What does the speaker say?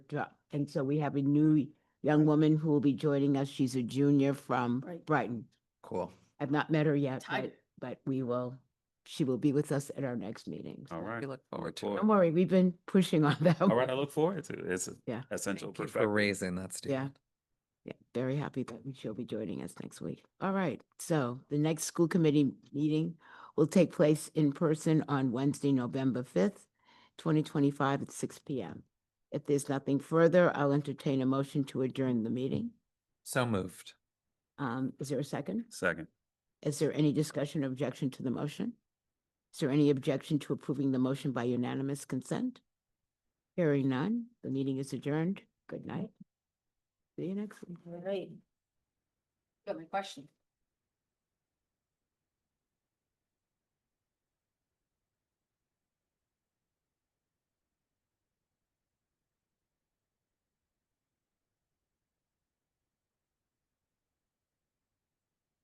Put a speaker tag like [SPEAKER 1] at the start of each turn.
[SPEAKER 1] uh, and so we have a new young woman who will be joining us. She's a junior from
[SPEAKER 2] Right.
[SPEAKER 1] Brighton.
[SPEAKER 3] Cool.
[SPEAKER 1] I've not met her yet,
[SPEAKER 2] Tiger.
[SPEAKER 1] but, but we will, she will be with us at our next meeting.
[SPEAKER 4] All
[SPEAKER 1] so
[SPEAKER 4] right.
[SPEAKER 3] We look forward to it.
[SPEAKER 1] Don't worry, we've been pushing on that.
[SPEAKER 4] All right, I
[SPEAKER 1] one.
[SPEAKER 4] look forward to it. It's a
[SPEAKER 1] Yeah.
[SPEAKER 4] essential
[SPEAKER 3] Thank you for
[SPEAKER 4] perspective.
[SPEAKER 3] raising that, Steve.
[SPEAKER 1] Yeah. Yeah, very happy that she'll be joining us next week. All right, so the next school committee meeting will take place in person on Wednesday, November fifth, twenty twenty-five at six P M. If there's nothing further, I'll entertain a motion to adjourn the meeting.
[SPEAKER 3] So moved.
[SPEAKER 1] Um, is there a second?
[SPEAKER 4] Second.
[SPEAKER 1] Is there any discussion or objection to the motion? Is there any objection to approving the motion by unanimous consent? Hearing none, the meeting is adjourned. Good night. See you next week.
[SPEAKER 2] All right. Got my question.